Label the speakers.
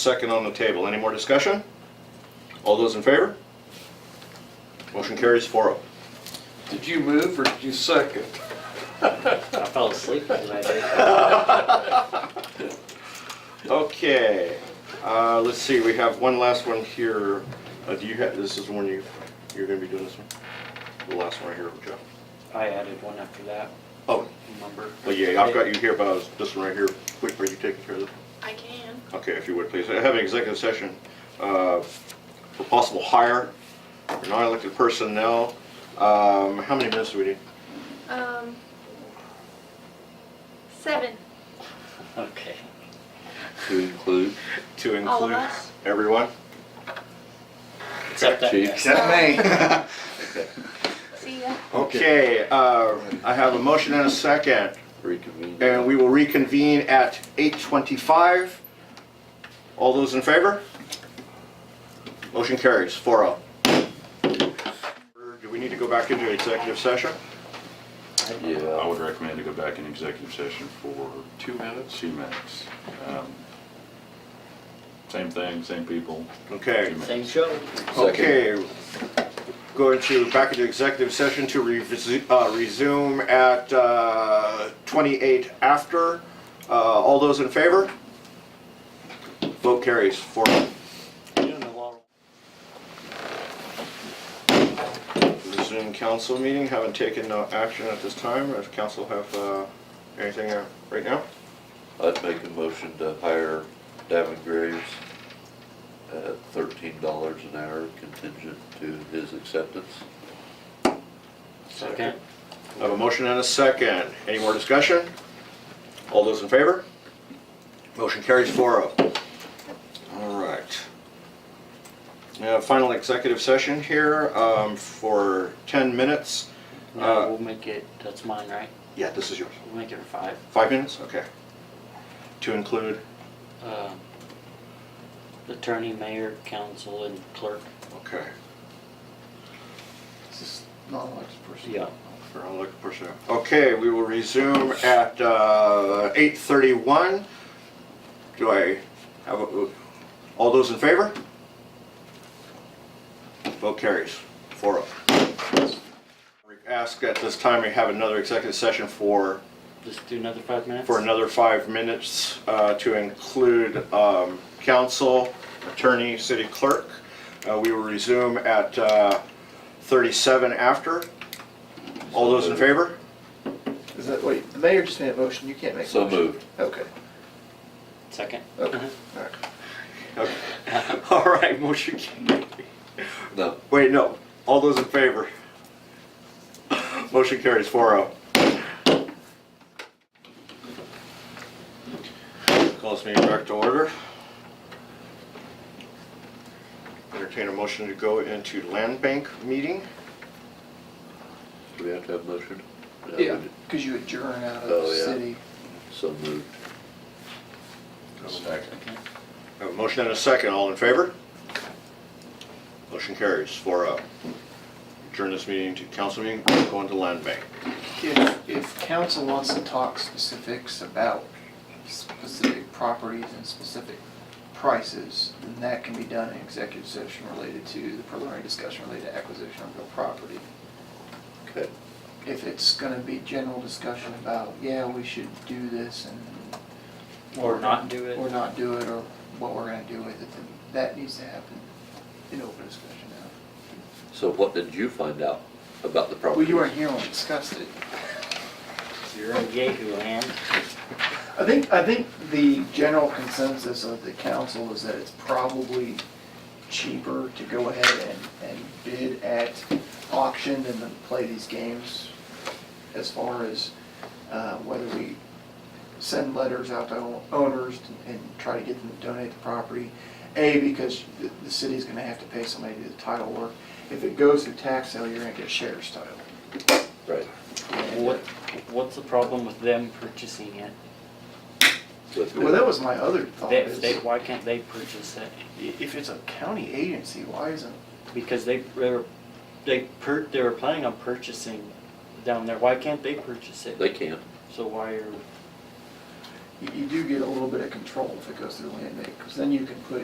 Speaker 1: Second on the table. Any more discussion? All those in favor? Motion carries oh. 4-0.
Speaker 2: Did you move or did you second?
Speaker 3: I fell asleep tonight.
Speaker 1: Okay, uh, let's see, we have one last one here. Uh, do you have, this is the one you, you're gonna be doing this one? The last one right here, Jeff.
Speaker 3: I added one after that,
Speaker 1: Oh,
Speaker 3: remember?
Speaker 1: well, yeah, I've got you here, but I was, this one right here, quick, are you taking care of this?
Speaker 4: I can.
Speaker 1: Okay, if you would, please. I have an executive session uh, for possible hire, for non-elected personnel. Um, How many minutes do we need?
Speaker 4: Um, seven.
Speaker 3: Okay.
Speaker 5: To include
Speaker 1: To
Speaker 4: All
Speaker 1: include
Speaker 4: of us?
Speaker 1: everyone?
Speaker 3: Except that
Speaker 5: Cheeks.
Speaker 3: guy.
Speaker 2: Except me.
Speaker 4: See ya.
Speaker 1: Okay, uh, I have a motion and a second.
Speaker 5: reconvene.
Speaker 1: And we will reconvene at 8:25. All those in favor? Motion carries, 4-0. Do we need to go back into executive session?
Speaker 6: I
Speaker 5: Yeah,
Speaker 6: would recommend to go back in executive session for
Speaker 2: Uh, Two minutes?
Speaker 6: CMAX. Um, Same thing, same people.
Speaker 1: Okay.
Speaker 3: Same show.
Speaker 5: second.
Speaker 1: Okay. Going to, back into executive session to revisit- uh, resume at uh, 28 after. Uh, All those in favor? Vote carries, oh. 4-0. resume council meeting, haven't taken no action at this time, if council have, uh, anything uh, right now?
Speaker 5: I'd make a motion to hire Davin Graves at thirteen dollars an hour contingent to his acceptance.
Speaker 3: Second.
Speaker 1: I have a motion and a second, any more discussion? All those in favor? Motion carries 4-0. All right. Now, final executive session here, um, for ten minutes, Uh,
Speaker 3: No, we'll make it, that's mine, right?
Speaker 1: yeah, this is yours,
Speaker 3: We'll make it five.
Speaker 1: five minutes, okay. To include,
Speaker 3: Um, Attorney, mayor, council, and clerk.
Speaker 1: okay,
Speaker 3: Yeah.
Speaker 1: for all like push out. Okay, we will resume at, uh, eight thirty-one. Do I have, a- all those in favor? Vote carries, four of. Ask at this time, we have another executive session for,
Speaker 3: Just do another five minutes?
Speaker 1: for another five minutes, uh, to include, um, council, attorney, city clerk. Uh, we will resume at, uh, thirty-seven after. All those in favor?
Speaker 7: Is that, wait, the mayor just made a motion, you can't make a
Speaker 5: So
Speaker 7: motion?
Speaker 5: moved.
Speaker 7: Okay,
Speaker 3: Second.
Speaker 1: Oh.
Speaker 3: Uh-huh.
Speaker 7: okay, all right.
Speaker 1: Okay. All right, motion carries.
Speaker 5: No,
Speaker 1: Wait, no, all those in favor? Motion carries four oh. Call this meeting back to order. Entertain a motion to go into land bank meeting.
Speaker 5: do we have to have a motion? No, we
Speaker 7: Yeah,
Speaker 5: didn't.
Speaker 7: because you adjourn out of
Speaker 5: Oh,
Speaker 7: the
Speaker 5: yeah.
Speaker 7: city.
Speaker 5: So moved.
Speaker 6: Second.
Speaker 1: Have a motion and a second, all in favor? Motion carries four oh. Adjourn this meeting to council meeting, go into land bank.
Speaker 7: If, if council wants to talk specifics about specific properties and specific prices, then that can be done in executive session related to the preliminary discussion related to acquisition of real property.
Speaker 5: Okay,
Speaker 7: If it's gonna be general discussion about, yeah, we should do this and,
Speaker 3: Or not do
Speaker 7: or
Speaker 3: it.
Speaker 7: not do it, or what we're gonna do with it, then that needs to happen in open discussion now.
Speaker 5: so what did you find out about the property?
Speaker 7: Well, you weren't here when we discussed it.
Speaker 3: You're in Yahoo land.
Speaker 7: I think, I think the general consensus of the council is that it's probably cheaper to go ahead and, and bid at auction than to play these games as far as uh, whether we send letters out to o- owners and try to get them to donate the property. A, because the, the city's gonna have to pay somebody to do the title work. If it goes through tax sale, you're gonna get shares title.
Speaker 5: Right,
Speaker 7: And-
Speaker 3: What, what's the problem with them purchasing it?
Speaker 5: with
Speaker 7: Well, that
Speaker 5: the
Speaker 7: was my other thought.
Speaker 3: They,
Speaker 7: is-
Speaker 3: they, why can't they purchase it?
Speaker 7: If it's a county agency, why isn't,
Speaker 3: Because they, they were, they per, they were planning on purchasing down there, why can't they purchase it?
Speaker 5: they can't.
Speaker 3: So why are,
Speaker 7: you, you do get a little bit of control if it goes through land bank, because then you can put